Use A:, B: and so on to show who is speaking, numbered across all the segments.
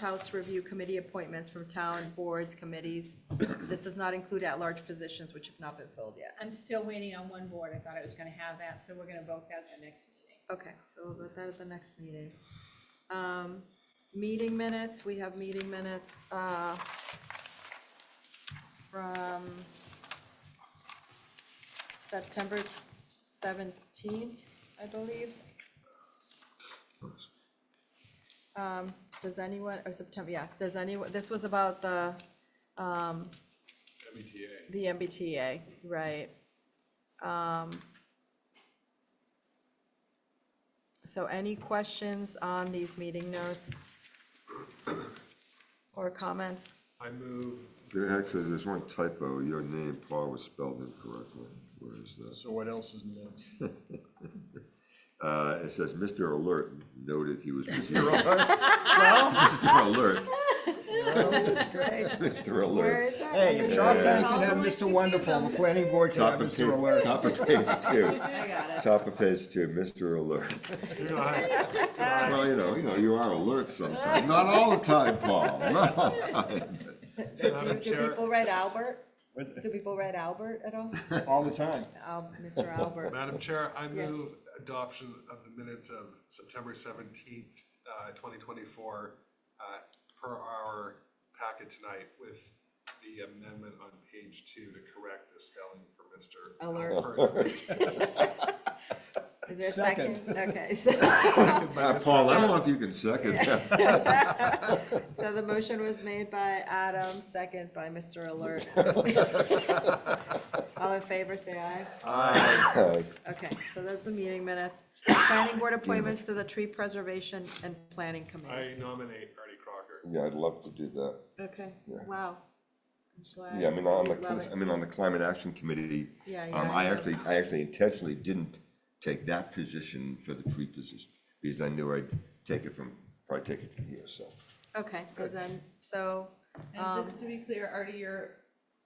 A: House Review Committee appointments from town boards, committees. This does not include at-large positions which have not been filled yet.
B: I'm still waiting on one board. I thought I was gonna have that, so we're gonna vote that at the next meeting.
A: Okay, so we'll put that at the next meeting. Um, Meeting minutes, we have meeting minutes uh, from September 17th, I believe. Um, Does anyone, or September, yes, does anyone, this was about the, um,
C: MBTA.
A: the MBTA, right? Um, So any questions on these meeting notes? Or comments?
C: I move,
D: There, actually, there's one typo. Your name, Paul, was spelled incorrectly. Where is that?
C: so what else is new?
D: Uh, it says Mr. Alert noted he was. Mr. Alert. Mr. Alert.
A: that?
E: Hey, if Charlton can have Mr. Wonderful, the planning board can have
D: Top of
E: Mr.
D: page,
E: Alert.
D: top of page two.
A: I got it.
D: Top of page two, Mr. Alert.
C: You know, I-
D: Well, you know, you know, you are alert sometimes. Not all the time, Paul. Not all the time.
A: Do,
C: Madam
A: do
C: Chair,
A: people read Albert? Do people read Albert at all?
E: All the time.
A: Al- Mr. Albert,
C: Madam Chair, I
A: Yes.
C: move adoption of the minutes of September seventeenth, uh, twenty twenty-four, uh, per our packet tonight with the amendment on page two to correct the spelling for Mr.
A: Alert.
C: Alpert's.
A: is there a
E: Second.
A: second? Okay, so,
C: Second by
D: Uh,
C: Mr.
D: Paul, I don't know if you can second that.
A: so the motion was made by Adam, second by Mr. Alert. All in favor, say aye.
D: Uh,
A: Okay, so that's the meeting minutes. Planning board appointments to the tree preservation and planning committee.
C: I nominate Artie Crocker.
D: Yeah, I'd love to do that.
A: Okay,
D: Yeah.
A: wow. I'm glad
D: Yeah, I mean, on
A: you
D: the,
A: love
D: cli-
A: it.
D: I mean, on the Climate Action Committee,
A: Yeah, yeah,
D: um, I
A: yeah.
D: actually, I actually intentionally didn't take that position for the tree position, because I knew I'd take it from, probably take it from here, so.
A: Okay, so then, so,
F: And just to be clear, Artie, you're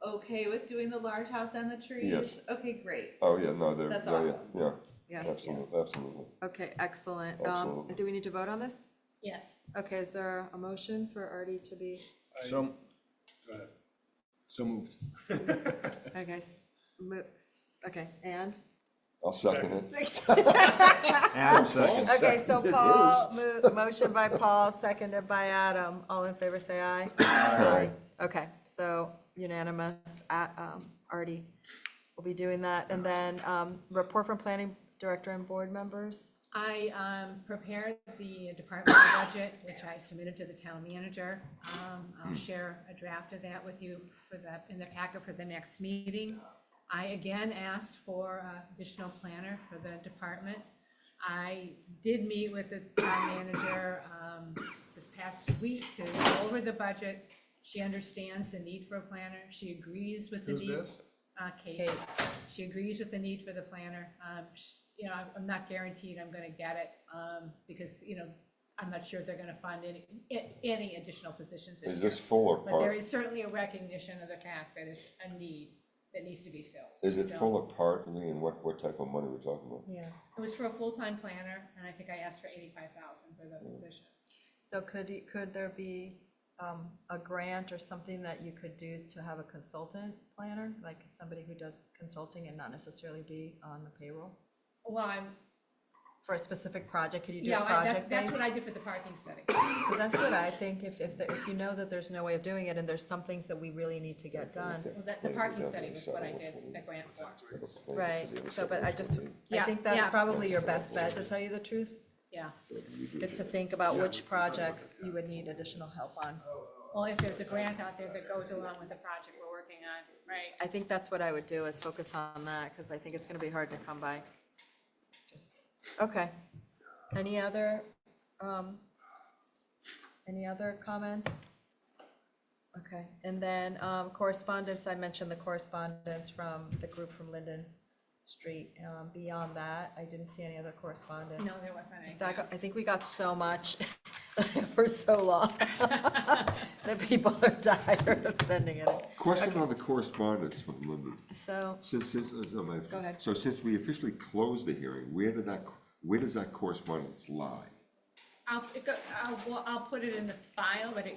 F: okay with doing the large house and the trees?
D: Yes.
F: Okay, great.
D: Oh, yeah, no, they're,
F: That's
D: yeah, yeah,
F: awesome.
D: yeah.
A: Yes.
D: Absolutely, absolutely.
A: okay, excellent. Um,
D: Absolutely.
A: do we need to vote on this?
B: Yes.
A: Okay, is there a motion for Artie to be,
E: So,
C: Go ahead.
E: so moved.
A: I guess, mo- okay, and?
D: I'll second it.
E: Adam seconds.
A: Okay, so
D: Second it
A: Paul, mo- motion by Paul, seconded by Adam. All in favor, say aye. Aye. Okay, so unanimous, uh, um, Artie will be doing that. And then, um, report from planning director and board members.
B: I um, prepared the department budget, which I submitted to the town manager. Um, I'll share a draft of that with you for the, in the packet for the next meeting. I again asked for uh, additional planner for the department. I did meet with the town manager um, this past week to go over the budget. She understands the need for a planner. She agrees with the
C: Who's
B: need.
C: this?
B: Uh, Kate, she agrees with the need for the planner. Um, sh- you know, I'm- I'm not guaranteed I'm gonna get it, um, because, you know, I'm not sure if they're gonna fund any, a- any additional positions this
D: Is
B: year.
D: this full or
B: But there
D: part?
B: is certainly a recognition of the fact that it's a need that needs to be filled.
D: Is it
B: So-
D: full or part, Lee, and what, what type of money we're talking about?
B: Yeah, it was for a full-time planner, and I think I asked for eighty-five thousand for the
D: Mm.
B: position.
A: So could, you- could there be, um, a grant or something that you could do to have a consultant planner? Like somebody who does consulting and not necessarily be on the payroll
B: Well, I'm,
A: for a specific project? Could you do a
B: yeah, I-
A: project
B: that-
A: based?
B: that's what I did for the parking study.
A: Because that's what I think, if, if, the- if you know that there's no way of doing it, and there's some things that we really need to get done,
B: Well, that- The parking study was what I did, the grant for.
A: right? So, but I just, I
B: Yeah,
A: think that's
B: yeah.
A: probably your best bet, to tell you the truth,
B: Yeah,
A: is to think about which projects you would need additional help on.
B: well, if there's a grant out there that goes along with the project we're working on, right?
A: I think that's what I would do, is focus on that, because I think it's gonna be hard to come by. Just Okay. Any other, um, any other comments? Okay, and then, um, correspondence, I mentioned the correspondence from the group from Linden Street. Um, beyond that, I didn't see any other correspondence.
B: No, there wasn't any.
A: That got- I think we got so much for so long, that people are tired of sending it.
D: Question on the correspondence from Linda.
A: So,
D: Since, since, uh, no, my-
A: Go ahead.
D: So since we officially closed the hearing, where did that, where does that correspondence lie?
B: I'll, it go- I'll, I'll put it in the file, but it